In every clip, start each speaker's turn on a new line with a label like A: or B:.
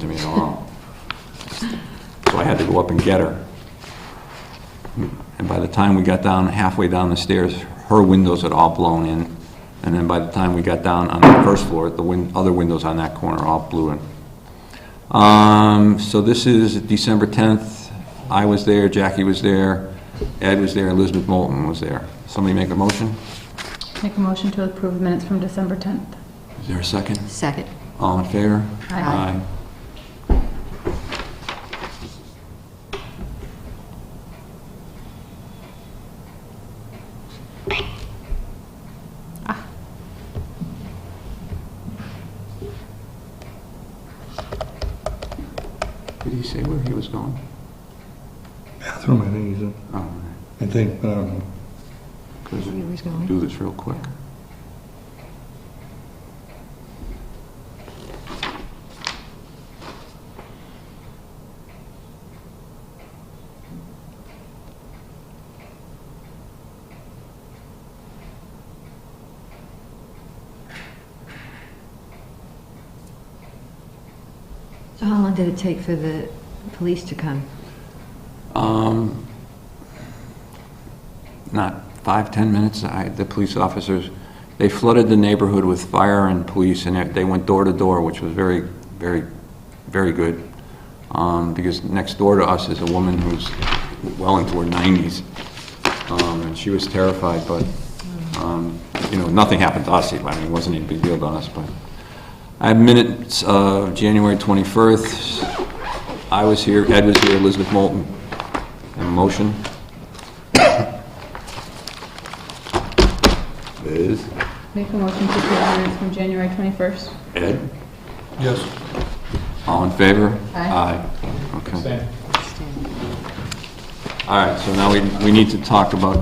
A: to me at all. So I had to go up and get her. And by the time we got down, halfway down the stairs, her windows had all blown in. And then by the time we got down on the first floor, the win, other windows on that corner all blew in. Um, so this is December 10th. I was there, Jackie was there, Ed was there, Elizabeth Moulton was there. Somebody make a motion?
B: Make a motion to approve minutes from December 10th.
A: Is there a second?
C: Second.
A: All in favor?
B: Aye.
A: Did he say where he was going?
D: bathroom, I think he's in,
A: Oh,
D: I think, but I don't know.
A: because
C: Where he was going.
A: do this real quick.
C: So how long did it take for the police to come?
A: Um, Not five, 10 minutes, I, the police officers, they flooded the neighborhood with fire and police, and they- they went door to door, which was very, very, very good, Um, because next door to us is a woman who's well into her 90s, Um, and she was terrified, but, um, you know, nothing happened to us, I mean, it wasn't any big deal to us, but. I have minutes of January 21st, I was here, Ed was here, Elizabeth Moulton. And motion? Liz?
B: Make a motion to approve the minutes from January 21st.
A: Ed?
D: Yes.
A: All in favor?
B: Aye.
A: Aye. Okay. All right, so now we, we need to talk about,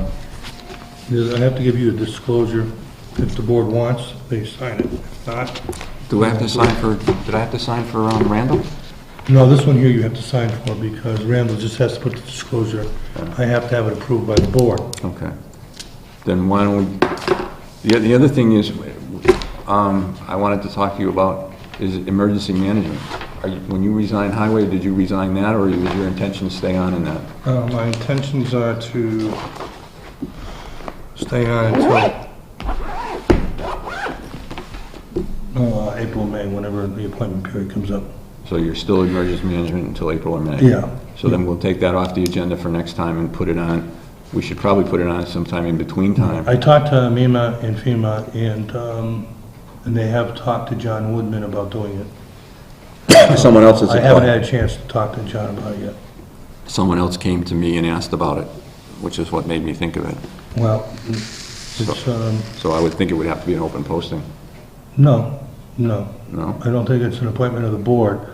D: I have to give you a disclosure. If the board wants, they sign it. If not,
A: do I have to sign for, did I have to sign for um, Randall?
D: no, this one here you have to sign for because Randall just has to put the disclosure. I have to have it approved by the board.
A: Okay. Then why don't we, the, the other thing is, um, I wanted to talk to you about is emergency management. Are you, when you resigned highway, did you resign that, or was your intention to stay on in that?
D: Uh, My intentions are to stay on until uh, April, May, whenever the appointment period comes up.
A: So you're still emergency management until April or May?
D: Yeah.
A: So then we'll take that off the agenda for next time and put it on, we should probably put it on sometime in between time.
D: I talked to MEMA and FEMA, and, um, and they have talked to John Woodman about doing it.
A: Someone else has
D: I haven't
A: applied.
D: had a chance to talk to John about it yet.
A: Someone else came to me and asked about it, which is what made me think of it.
D: Well, it's, um,
A: So I would think it would have to be an open posting,
D: no, no.
A: no?
D: I don't think it's an appointment of the board.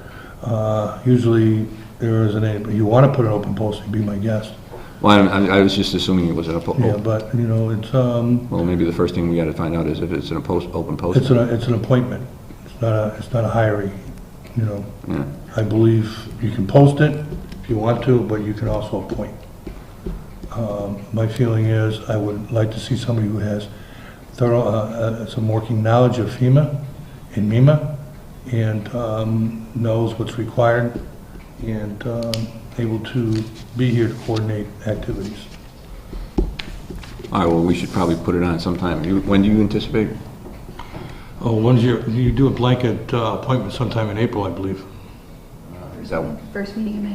D: Uh, usually, there isn't any, but you want to put an open posting, be my guest.
A: Well, I, I was just assuming it was an
D: Yeah,
A: open,
D: but, you know, it's, um,
A: well, maybe the first thing we gotta find out is if it's an opposed, open
D: it's
A: posting.
D: an, it's an appointment. It's not a, it's not a hiring, you know.
A: Yeah.
D: I believe you can post it if you want to, but you can also appoint. Um, My feeling is, I would like to see somebody who has thorough, uh, uh, some working knowledge of FEMA and MEMA, and um, knows what's required, and um, able to be here to coordinate activities.
A: All right, well, we should probably put it on sometime. You- When do you anticipate?
D: Oh, when's your, you do a blanket uh, appointment sometime in April, I believe.
A: Is that
E: First meeting in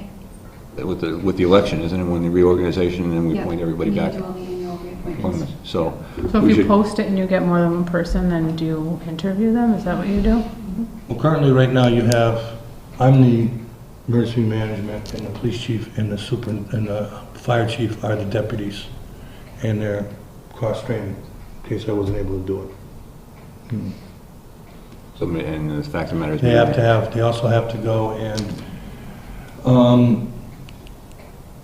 E: May.
A: with the, with the election, isn't it, when the reorganization, and then we
E: Yeah.
A: appoint everybody
E: We need
A: back?
E: to do all the annual reappointments.
A: appointments. So.
B: So
A: we
B: if you
A: should-
B: post it and you get more than one person, then do you interview them? Is that what you do?
D: Well, currently, right now, you have, I'm the emergency management, and the police chief and the super, and the fire chief are the deputies, and they're cross-trained, in case I wasn't able to do it.
A: So, and the fact of the matter is.
D: They have to have, they also have to go and, um,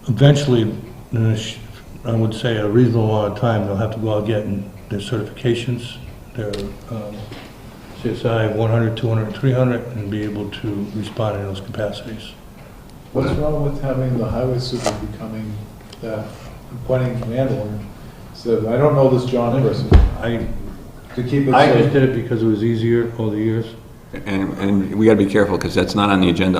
D: eventually, in a sh- I would say a reasonable amount of time, they'll have to go out getting their certifications, their um, CSI 100, 200, 300, and be able to respond in those capacities.
F: What's wrong with having the highway super becoming the appointing landlord? So I don't know this John person,
D: I,
F: to keep it
D: I just
F: safe.
D: did it because it was easier over the years.
A: And, and we got to be careful, because that's not on the agenda